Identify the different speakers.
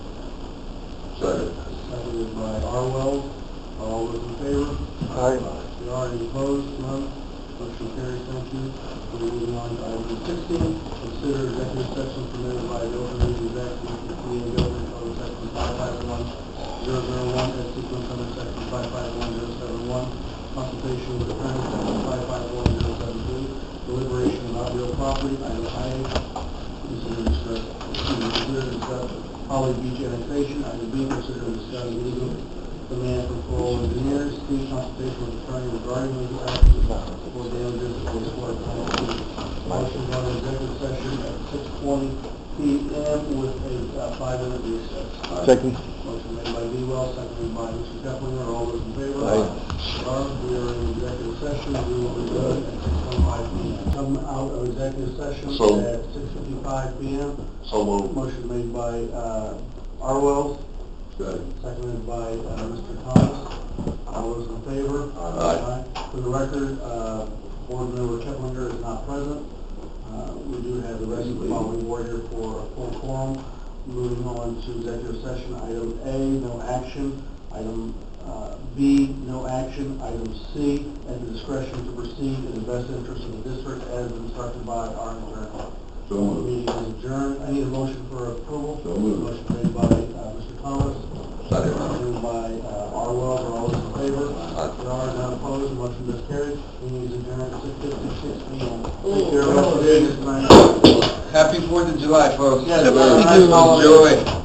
Speaker 1: Second.
Speaker 2: Seconded by Arwell. All those in favor?
Speaker 1: Aye.
Speaker 2: There are any opposed? None. Motion carries. Thank you. We're moving on to item sixteen. Consider executive session permitted by the Open Meetings Act, Commission Committee Government Code Section five five one zero zero one, as sequence under Section five five one zero seven one, consultation with attorney, Section five five one zero seven two, deliberation of not real property, item I, consider discuss, excuse me, consider discuss Holly Beach annexation, item B, consider discuss legal demand for parole engineers, C, consultation with attorney regarding legal actions for damages for wastewater plant leak. Motion on executive session at six twenty P M with a uh, five-minute recess.
Speaker 1: Second.
Speaker 2: Motion made by Dewell, seconded by Mr. Keplinger, all those in favor?
Speaker 1: Aye.
Speaker 2: Barb, we are in executive session, we will return at six twenty-five P M. Come out of executive session
Speaker 1: So-
Speaker 2: at six fifty-five P M.
Speaker 1: So moved.
Speaker 2: Motion made by, uh, Arwell,
Speaker 1: Second.
Speaker 2: seconded by, uh, Mr. Thomas. All those in favor?
Speaker 1: Aye.
Speaker 2: For the record, uh, board member Keplinger is not present. Uh, we do have the rest of the following board here for a full quorum. Moving on to executive session, item A, no action. Item, uh, B, no action. Item C, at the discretion to proceed in the best interest of the district as instructed by our attorney.
Speaker 1: So
Speaker 2: Meeting is adjourned. I need a motion for approval.
Speaker 1: So moved.
Speaker 2: Motion made by, uh, Mr. Thomas.
Speaker 1: Second.
Speaker 2: Seconded by uh, Arwell, are all those in favor?
Speaker 1: Aye.
Speaker 2: There are none opposed, motion is carried. Meeting is adjourned at six fifty-six P M. Thank you, everyone, for being here tonight.
Speaker 1: Happy Fourth of July, folks.
Speaker 2: Yes,
Speaker 1: Have a
Speaker 2: sir.
Speaker 1: nice
Speaker 2: Enjoy.
Speaker 1: holiday.